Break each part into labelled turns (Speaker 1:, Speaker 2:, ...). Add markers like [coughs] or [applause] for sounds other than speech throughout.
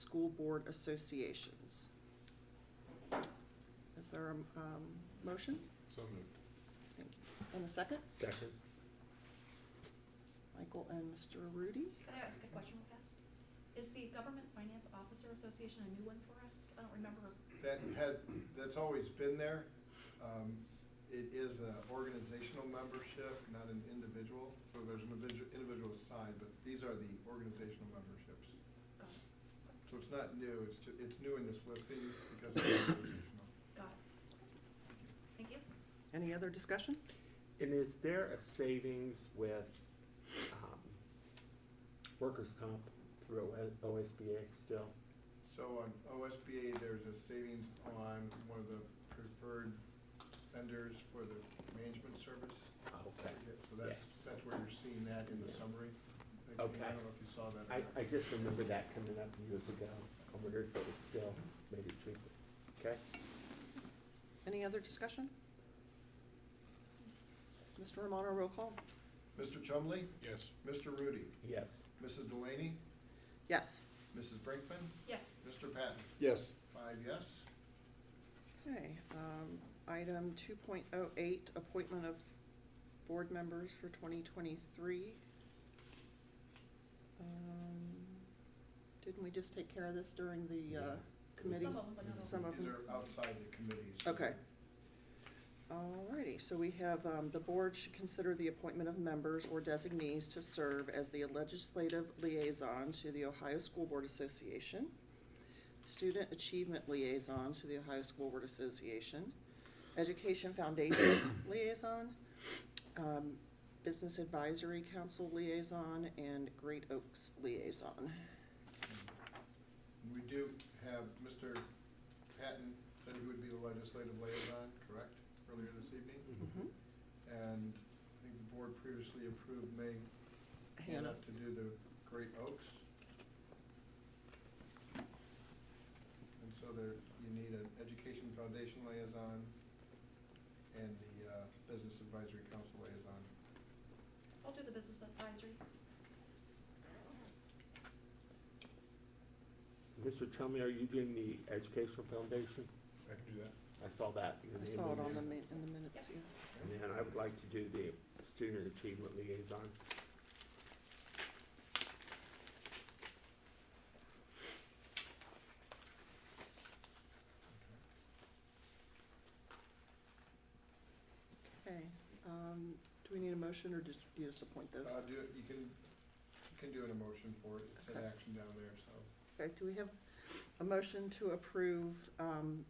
Speaker 1: school board associations. Is there a, um, motion?
Speaker 2: So moved.
Speaker 1: Thank you. And a second?
Speaker 3: Second.
Speaker 1: Michael and Mr. Rudy?
Speaker 4: Can I ask a question real fast? Is the Government Finance Officer Association a new one for us? I don't remember.
Speaker 5: That had, that's always been there. Um, It is an organizational membership, not an individual, so there's an individu- individual side, but these are the organizational memberships.
Speaker 4: Got it,
Speaker 5: So it's not new, it's, ju- it's new in this listing because it's [coughs] organizational.
Speaker 4: got it. Thank you.
Speaker 1: Any other discussion?
Speaker 3: And is there a savings with um, workers' comp through O- OSBA still?
Speaker 5: So on OSBA, there's a savings on one of the preferred vendors for the management service.
Speaker 3: Okay.
Speaker 5: So that's, that's where you're seeing that in the summary. that came out. I
Speaker 3: Okay.
Speaker 5: don't know if you saw that or
Speaker 3: I,
Speaker 5: not.
Speaker 3: I just remember that coming up years ago. I wondered if it was still maybe cheaper. Okay?
Speaker 1: Any other discussion? Mr. Romano, roll call.
Speaker 5: Mr. Chumley,
Speaker 2: Yes.
Speaker 5: Mr. Rudy,
Speaker 3: Yes.
Speaker 5: Mrs. Delaney,
Speaker 1: Yes.
Speaker 5: Mrs. Brinkman,
Speaker 4: Yes,
Speaker 5: Mr. Patton.
Speaker 2: Yes.
Speaker 5: Five yes.
Speaker 1: Okay, um, item two point oh eight, appointment of board members for twenty twenty-three. Um, Didn't we just take care of this during the, uh,
Speaker 3: Yeah.
Speaker 1: committee?
Speaker 4: some of them, but not all.
Speaker 1: Some of
Speaker 5: These
Speaker 1: them.
Speaker 5: are outside the committees.
Speaker 1: Okay. Alrighty, so we have, um, the board should consider the appointment of members or designees to serve as the legislative liaison to the Ohio School Board Association, student achievement liaison to the Ohio School Board Association, education foundation [coughs] liaison, um, business advisory council liaison, and Great Oaks liaison.
Speaker 5: And um, We do have Mr. Patton said he would be the legislative liaison, correct, earlier this evening?
Speaker 1: Mhm.
Speaker 5: And I think the board previously approved May
Speaker 1: Hannah,
Speaker 5: Hannah to do the Great Oaks. And so there, you need an education foundation liaison and the uh, business advisory council liaison.
Speaker 4: I'll do the business advisory.
Speaker 3: Mr. Chumley, are you doing the Educational Foundation?
Speaker 2: I can do that.
Speaker 3: I saw that. your
Speaker 1: I
Speaker 3: name
Speaker 1: saw it on the
Speaker 3: there.
Speaker 1: ma- in the minutes, yeah.
Speaker 3: And then I would like to do the Student Achievement Liaison.
Speaker 1: Okay, um, do we need a motion or just, you just appoint those?
Speaker 5: Uh, do, it- you can, you can do an emotion for it, it's an
Speaker 1: Okay.
Speaker 5: action down there, so.
Speaker 1: Okay, do we have a motion to approve, um,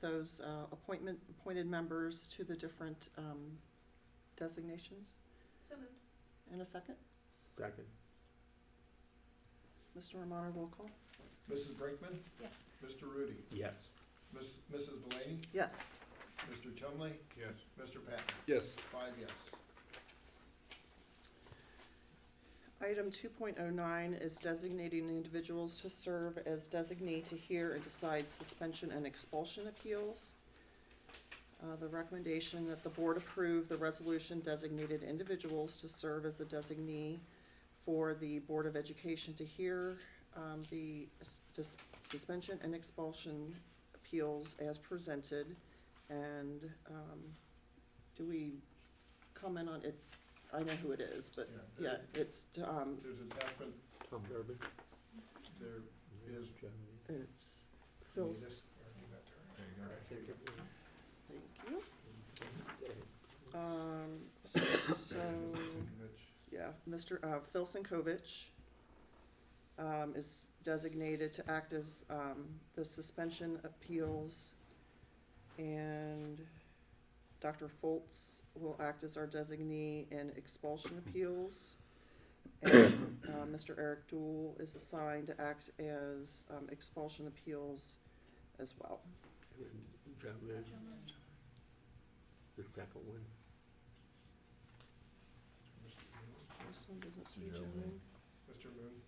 Speaker 1: those, uh, appointment, appointed members to the different, um, designations?
Speaker 4: So moved.
Speaker 1: In a second,
Speaker 3: Second.
Speaker 1: Mr. Romano, roll call?
Speaker 5: Mrs. Brinkman,
Speaker 4: Yes,
Speaker 5: Mr. Rudy,
Speaker 3: Yes.
Speaker 5: Miss, Mrs. Delaney,
Speaker 1: Yes.
Speaker 5: Mr. Chumley,
Speaker 2: Yes.
Speaker 5: Mr. Patton,
Speaker 2: Yes.
Speaker 5: five yes.
Speaker 1: Item two point oh nine is designating individuals to serve as designee to hear and decide suspension and expulsion appeals. Uh, the recommendation that the board approve the resolution designated individuals to serve as the designee for the Board of Education to hear, um, the s- dis- suspension and expulsion appeals as presented. And, um, do we comment on, it's, I know who it is, but Uh, yeah,
Speaker 5: there-
Speaker 1: it's, um,
Speaker 5: There's attachment,
Speaker 3: Tom Durbin.
Speaker 5: there is.
Speaker 1: it's Phil's,
Speaker 5: Need this? Or give that to her?
Speaker 3: There you go.
Speaker 1: thank you.
Speaker 3: Okay.
Speaker 1: Um, so, [coughs]
Speaker 5: Which-
Speaker 1: yeah, Mr., uh, Phil Sinkovich, um, is designated to act as, um, the suspension appeals. And Dr. Foltz will act as our designee in expulsion appeals. And, uh, Mr. Eric Dool is assigned to act as, um, expulsion appeals as well.
Speaker 3: And Drummond,
Speaker 4: John Lynch.
Speaker 3: the second one.
Speaker 5: Mr. Moon?
Speaker 1: This one doesn't say
Speaker 2: Yeah,
Speaker 1: John
Speaker 2: we-
Speaker 1: Moon.
Speaker 5: Mr. Moon,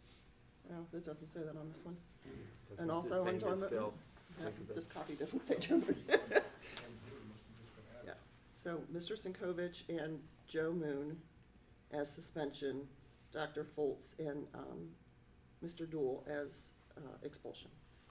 Speaker 1: No, it doesn't say that on this one.
Speaker 3: So
Speaker 1: And
Speaker 3: it's the
Speaker 1: also
Speaker 3: same
Speaker 1: on
Speaker 3: as
Speaker 1: Drummond.
Speaker 3: Phil.
Speaker 1: Yeah,
Speaker 3: Second
Speaker 1: This
Speaker 3: best.
Speaker 1: copy doesn't say Joe Moon.
Speaker 5: Tom Moon must have just been added.
Speaker 1: Yeah. So Mr. Sinkovich and Joe Moon as suspension, Dr. Foltz and um, Mr. Dool as uh, expulsion.